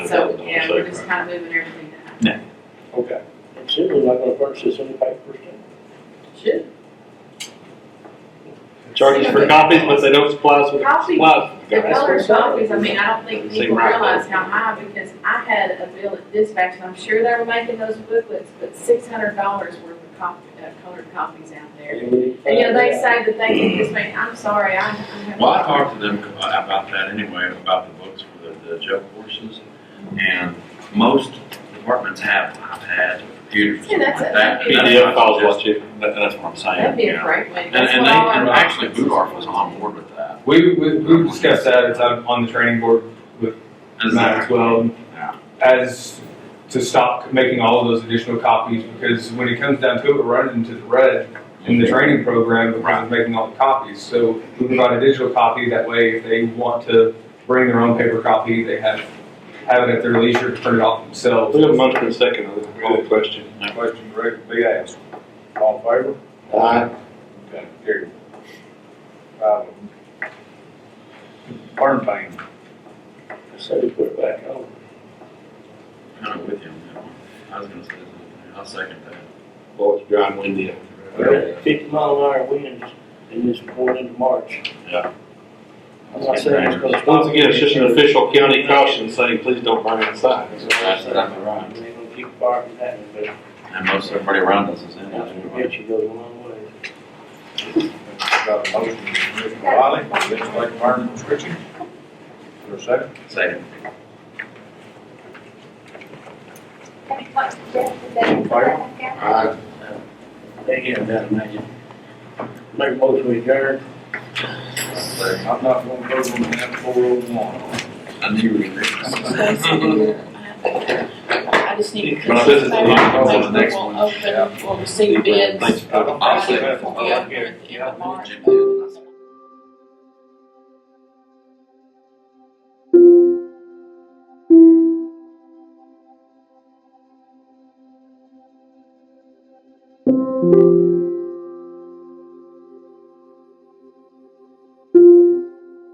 just kind of moving everything down. Okay. And certainly not gonna furnish this any paper first time. Should. Charges for copies, but they don't supply us with Copies. supplies. The color copies, I mean, I don't think Doesn't people seem right. realize how high, because I had a bill at dispatch, and I'm sure they were making those booklets, but six hundred dollars worth of cop, uh, colored copies out there. And, you know, they say that they can just make, I'm sorry, I, I have. Well, I talked to them about that anyway, about the books for the, the jail courses. And most departments have iPads or computers or Yeah, something like that's it. that. That'd be- PDF files, what you, that- that's what I'm That'd saying. be you a know. great way. And, and they, and actually Budar was on board with that. We, we, we discussed that, it's on, on the training board with Is Matt as that- well, Yeah. as to stop making all of those additional copies, because when it comes down to it, we're running into the red in the training program because of making all the copies. So we provide a digital copy, that way if they want to bring their own paper copy, they have, have it at their leisure to print it off themselves. We have a motion and a second on this whole question. Question ready to be asked. All in favor? Aye. Okay, carried. Um, Burn pain. I said we put it back on. Kind of with you on that one. I was gonna say something. I'll second that. Well, it's John Wendy. We had Fifty mile an hour winds in this going into March. Yeah. I'm not saying it's gonna stop. Once again, it's just an official county caution saying, please don't burn inside. That's exactly I right. mean, They're gonna keep fire from happening, but And most everybody around us is in that's it gonna anyway. get you goes a long way. Got a motion from Commissioner Wiley, legislative burn restriction. For a second. Second. Aye. They get that, imagine. Make a motion we adjourn. I'm not going to go on that four oh one. I knew you were gonna. I just need to. But this is- Maybe we'll this is the next one. Open, we'll receive bids. Thanks. I'll second. We'll oh be open at the end of March.